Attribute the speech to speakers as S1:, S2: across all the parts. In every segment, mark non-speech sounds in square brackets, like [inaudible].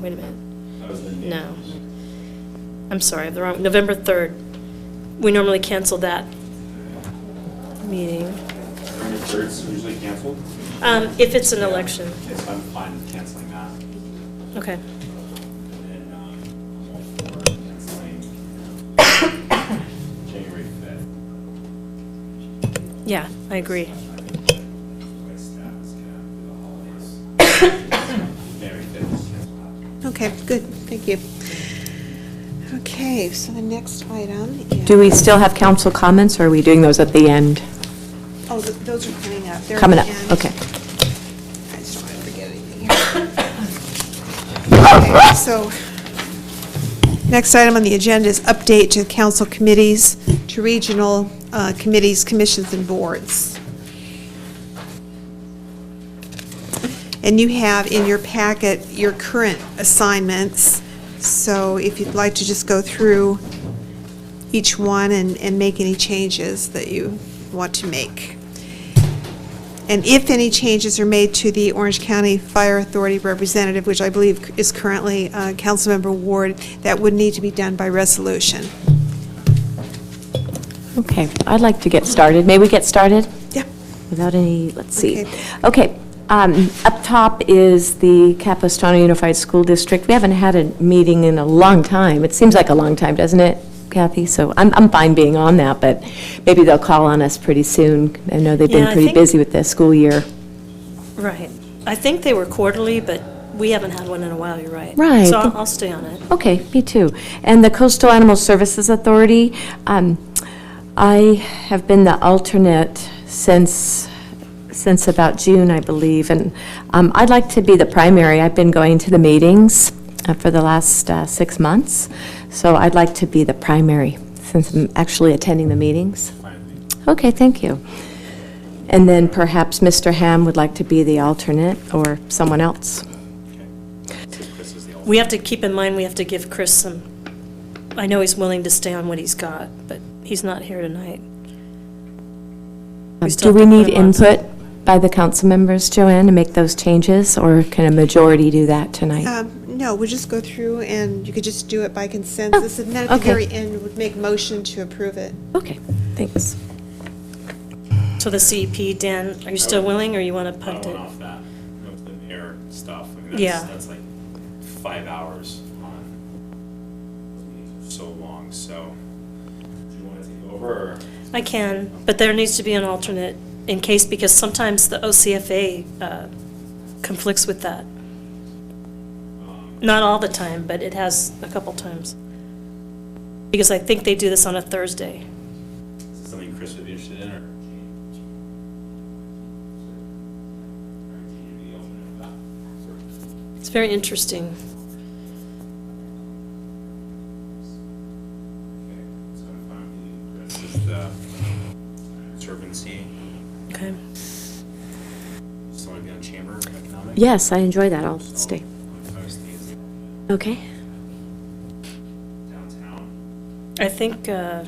S1: Wait a minute. No. I'm sorry, I have the wrong, November 3rd. We normally cancel that meeting.
S2: November third's usually canceled.
S1: Um, if it's an election,
S2: Yes, I'm fine with canceling that.
S1: okay.
S2: And then, um, I'm all for canceling um, [coughs] January fifth.
S1: Yeah, I agree.
S2: I think that the way staff is gonna do the holidays. January fifth is canceled.
S3: Okay, good, thank you. Okay, so the next item is...
S4: Do we still have council comments, or are we doing those at the end?
S3: Oh, th- those are coming up. They're at
S4: Coming
S3: the
S4: up,
S3: end.
S4: okay.
S3: I just don't want to forget anything here. Okay, So, next item on the agenda is update to council committees, to regional uh, committees, commissions, and boards. And you have in your packet your current assignments, so if you'd like to just go through each one and, and make any changes that you want to make. And if any changes are made to the Orange County Fire Authority representative, which I believe is currently uh, Councilmember Ward, that would need to be done by resolution.
S4: Okay, I'd like to get started. May we get started?
S3: Yeah.
S4: Without any, let's see.
S3: Okay.
S4: Okay, um, up top is the Capistrano Unified School District. We haven't had a meeting in a long time. It seems like a long time, doesn't it, Kathy? So I'm, I'm fine being on that, but maybe they'll call on us pretty soon. I know they've
S1: Yeah,
S4: been
S1: I
S4: pretty
S1: think-
S4: busy with the school year.
S1: Right. I think they were quarterly, but we haven't had one in a while, you're right.
S4: Right.
S1: So I'll I'll stay on it.
S4: Okay, me too. And the Coastal Animal Services Authority, um, I have been the alternate since, since about June, I believe, and um, I'd like to be the primary. I've been going to the meetings uh, for the last uh, six months, so I'd like to be the primary since I'm actually attending the meetings. Okay, thank you. And then perhaps Mr. Ham would like to be the alternate or someone else.
S1: We have to keep in mind, we have to give Chris some, I know he's willing to stay on what he's got, but he's not here tonight. We still
S4: Um, Do we
S1: have to
S4: need
S1: put him on.
S4: input by the council members, Joanne, to make those changes, or can a majority do that tonight?
S3: Um, No, we'll just go through and you could just do it by
S1: Oh,
S3: consensus, and then at the
S4: okay.
S3: very end, would make motion to approve it.
S4: Okay, thanks.
S1: So the CEP, Dan, are you still willing, or you want to
S2: I
S1: punt
S2: went
S1: it?
S2: off that, with the mayor stuff, I mean,
S1: Yeah.
S2: that's, that's like five hours on, so long, so, do you wanna take over, or?
S1: I can, but there needs to be an alternate in case, because sometimes the OCFA uh, conflicts with that. Not all the time, but it has a couple times. Because I think they do this on a Thursday.
S2: Is it something Chris would be interested in, or?
S1: It's very interesting.
S2: So if I'm- Chris is the Conservancy,
S1: Okay.
S2: someone be on Chamber of Economic?
S4: Yes, I enjoy that, I'll stay.
S2: If I was the- is
S4: Okay.
S2: Downtown,
S1: I think, uh,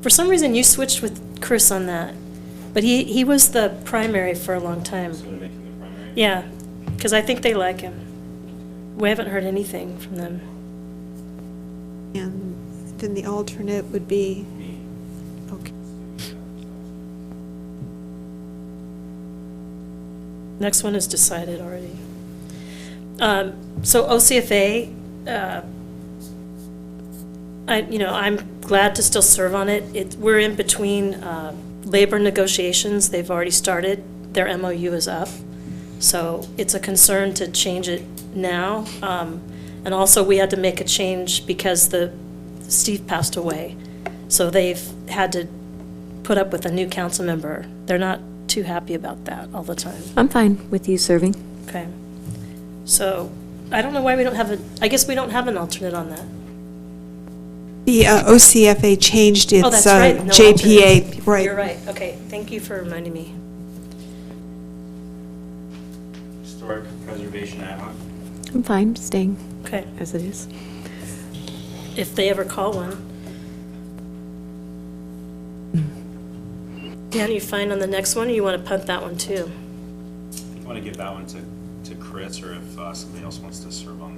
S1: for some reason, you switched with Chris on that, but he, he was the primary for a long time.
S2: so to make him the primary?
S1: Yeah, because I think they like him. We haven't heard anything from them.
S3: And then the alternate would be, okay.
S1: Next one is decided already. Um, So OCFA, uh, I, you know, I'm glad to still serve on it. It, we're in between uh, labor negotiations, they've already started, their MOU is up. So it's a concern to change it now. Um, And also, we had to make a change because the, Steve passed away. So they've had to put up with a new council member. They're not too happy about that all the time.
S4: I'm fine with you serving.
S1: Okay. So, I don't know why we don't have a, I guess we don't have an alternate on that. Oh,
S3: The uh, OCFA changed
S1: Oh,
S3: its
S1: that's
S3: uh,
S1: right. no alternate.
S3: JPA, right.
S1: You're right. Okay, thank you for reminding me.
S2: Historic Preservation Ad hoc.
S4: I'm fine staying
S1: Okay,
S4: as it is.
S1: if they ever call one. Dan, you fine on the next one, or you want to punt that one too?
S2: I want to give that one to to Chris, or if uh, somebody else wants to serve on